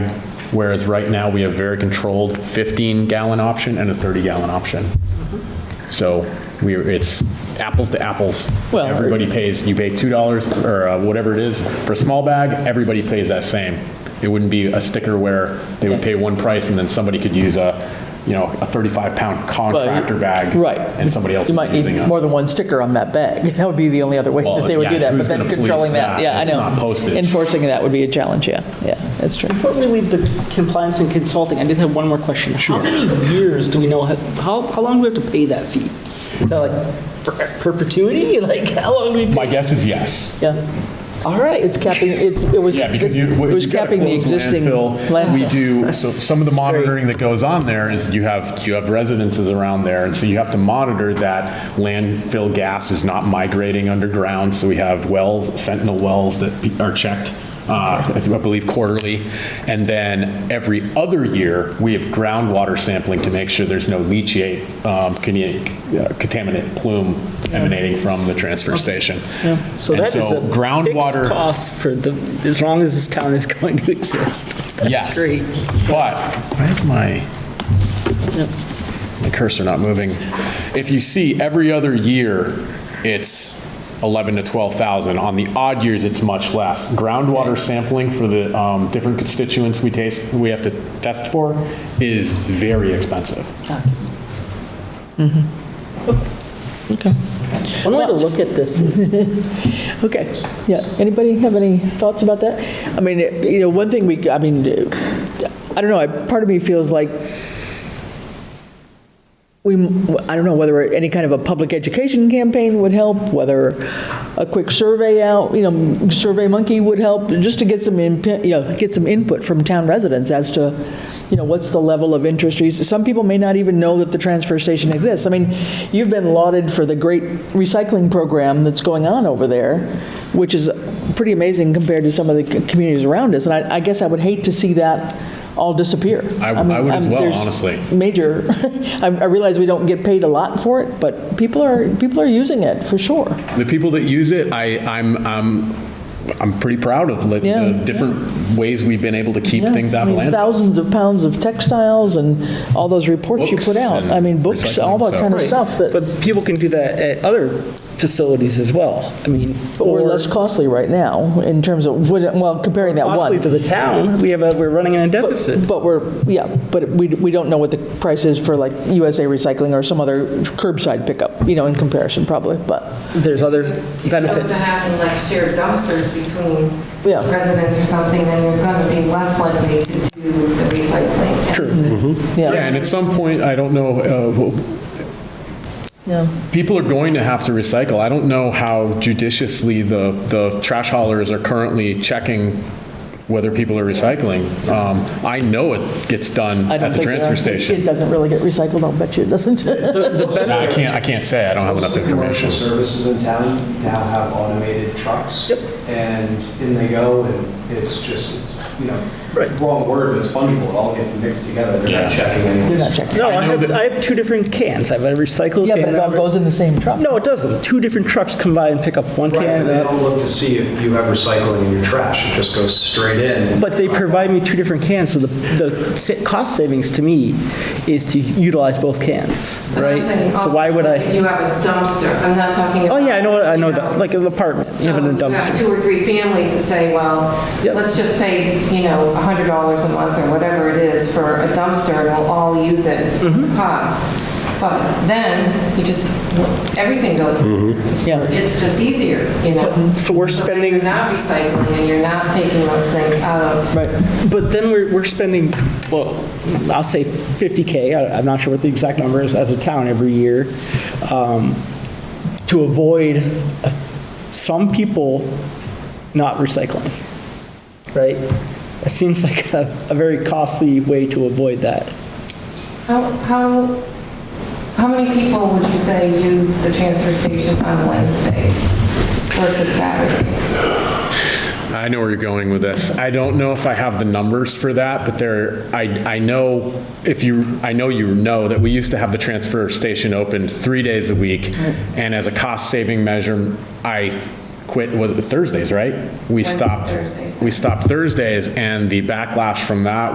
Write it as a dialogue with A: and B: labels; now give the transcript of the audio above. A: Whereas right now, we have very controlled 15-gallon option and a 30-gallon option. So we, are it's apples to apples.
B: Well-
A: Everybody pays, you pay $2 or uh, whatever it is for a small bag, everybody pays that same. It wouldn't be a sticker where they would pay one price and then somebody could use a, you know, a 35-pound
B: Well, you-
A: contractor bag.
B: Right.
A: And somebody else
B: You
A: is
B: might
A: using
B: need
A: a.
B: more than one sticker on that bag. That would be the only other way
A: Well,
B: that they would
A: yeah,
B: do that, but
A: who's
B: then
A: gonna police
B: controlling that,
A: that?
B: yeah, I
A: It's
B: know.
A: not postage.
B: Enforcing that would be a challenge, yeah, yeah, that's true.
C: Before we leave the compliance and consulting, I did have one more question. Sure. How many years do we know, how, how long do we have to pay that fee? Is that like per- perpetuity? Like, how long do we?
A: My guess is yes.
B: Yeah,
C: All right.
B: it's capping, it's, it was.
A: Yeah, because you. you
B: It was
A: gotta
B: capping the
A: close
B: existing
A: landfill. We
B: landfill.
A: do, so some of the monitoring that goes on there is you have, you have residences around there, and so you have to monitor that landfill gas is not migrating underground, so we have wells, sentinel wells that pe- are checked, uh, I think- I believe quarterly. And then every other year, we have groundwater sampling to make sure there's no leachate, um, contamin- uh, contaminant plume emanating from the transfer station.
C: So
A: And
C: that is a
A: groundwater-
C: fixed cost for the, as long as this town is going to exist.
A: Yes.
C: That's great.
A: But, why is my, my cursor not moving? If you see, every other year, it's 11 to 12,000. On the odd years, it's much less. Groundwater sampling for the um, different constituents we taste, we have to test for is very expensive.
C: One way to look at this is,
B: Okay, yeah. Anybody have any thoughts about that? I mean, it- you know, one thing we, I mean, I don't know, I- part of me feels like we, I don't know whether any kind of a public education campaign would help, whether a quick survey out, you know, Survey Monkey would help, just to get some, inp- you know, get some input from town residents as to, you know, what's the level of interest. or use- Some people may not even know that the transfer station exists. I mean, you've been lauded for the great recycling program that's going on over there, which is pretty amazing compared to some of the c- communities around us. And I, I guess I would hate to see that all disappear.
A: I-
B: I'm-
A: I would as
B: I'm-
A: well,
B: there's-
A: honestly.
B: major, I I realize we don't get paid a lot for it, but people are, people are using it, for sure.
A: the people that use it, I, I'm, I'm, I'm pretty proud of like,
B: Yeah.
A: the different ways we've been able to keep
B: Yeah.
A: things
B: I
A: out of
B: mean,
A: landfill.
B: Thousands of pounds of textiles and all those reports you
A: Books
B: put out.
A: and
B: I mean, books, all
A: recycling,
B: that kind of
A: so-
B: stuff that,
C: but people can do that at other facilities as well. I mean.
B: but we're
C: or-
B: less costly right now in terms of, what- well, comparing that
C: Costly
B: one.
C: to the town, we have a, we're running in a deficit.
B: But we're, yeah, but we, we don't know what the price is for like USA Recycling or some other curbside pickup, you know, in comparison probably, but,
C: There's other
D: If you
C: benefits.
D: don't have like shared dumpsters between
B: Yeah.
D: residents or something, then you're going to be less likely to do the recycling. True.
A: Yeah,
B: yeah.
A: and at some point, I don't know, uh, wh-
B: Yeah.
A: people are going to have to recycle. I don't know how judiciously the, the trash haulers are currently checking whether people are recycling. Um, I know it gets done
B: I
A: at
B: don't
A: the
B: think it-
A: transfer
B: It
A: station.
B: doesn't really get recycled, I'll bet you it doesn't.
A: I can't, I can't say, I don't have enough
E: Most of the
A: information.
E: Commercial services in town now have automated trucks. Yep. And in they go, and it's just, it's, you know, wrong word, but it's fungible, it all gets mixed together, they're
A: Yeah.
E: not checking
B: You're
E: anyways.
B: not checking.
C: No,
A: I
C: I
A: know
C: have,
A: that-
C: I have two different cans. I have a recycle
B: Yeah,
C: can.
B: but it
C: and I
B: all
C: have a-
B: goes in the same truck.
C: No, it doesn't. Two different trucks come by and pick up one
E: Right,
C: can.
E: and
C: and
E: they
C: that-
E: don't look to see if you have recycling in your trash, it just goes straight in.
C: But they provide me two different cans, so the, the sa- cost savings to me is to utilize both cans, right? So why would
D: If
C: I?
D: you have a dumpster, I'm not talking about.
C: Oh, yeah, I know, I know,
D: you
C: that, like an apartment, you have an
D: So you have
C: dumpster.
D: two or three families that say, well,
C: Yep.
D: let's just pay, you know, $100 a month or whatever it is for a dumpster, and we'll all use it, it's the
C: Mm-hmm.
D: cost. But then, you just, everything goes,
B: Yeah.
D: it's just easier, you know?
C: So we're
D: So then
C: spending-
D: You're not recycling, and you're not taking those things out of.
B: Right.
C: But then we're, we're spending, well, I'll say 50K, I- I'm not sure what the exact number is as a town every year, um, to avoid uh, some people not recycling, right? It seems like a, a very costly way to avoid that.
D: How, how, how many people would you say use the transfer station on Wednesdays versus Saturdays?
A: I know where you're going with this. I don't know if I have the numbers for that, but there, I, I know, if you, I know you know that we used to have the transfer station open three days a week, and as a cost-saving measure, I quit, was it Thursdays, right? We stopped,
D: Thursdays.
A: we stopped Thursdays, and the backlash from that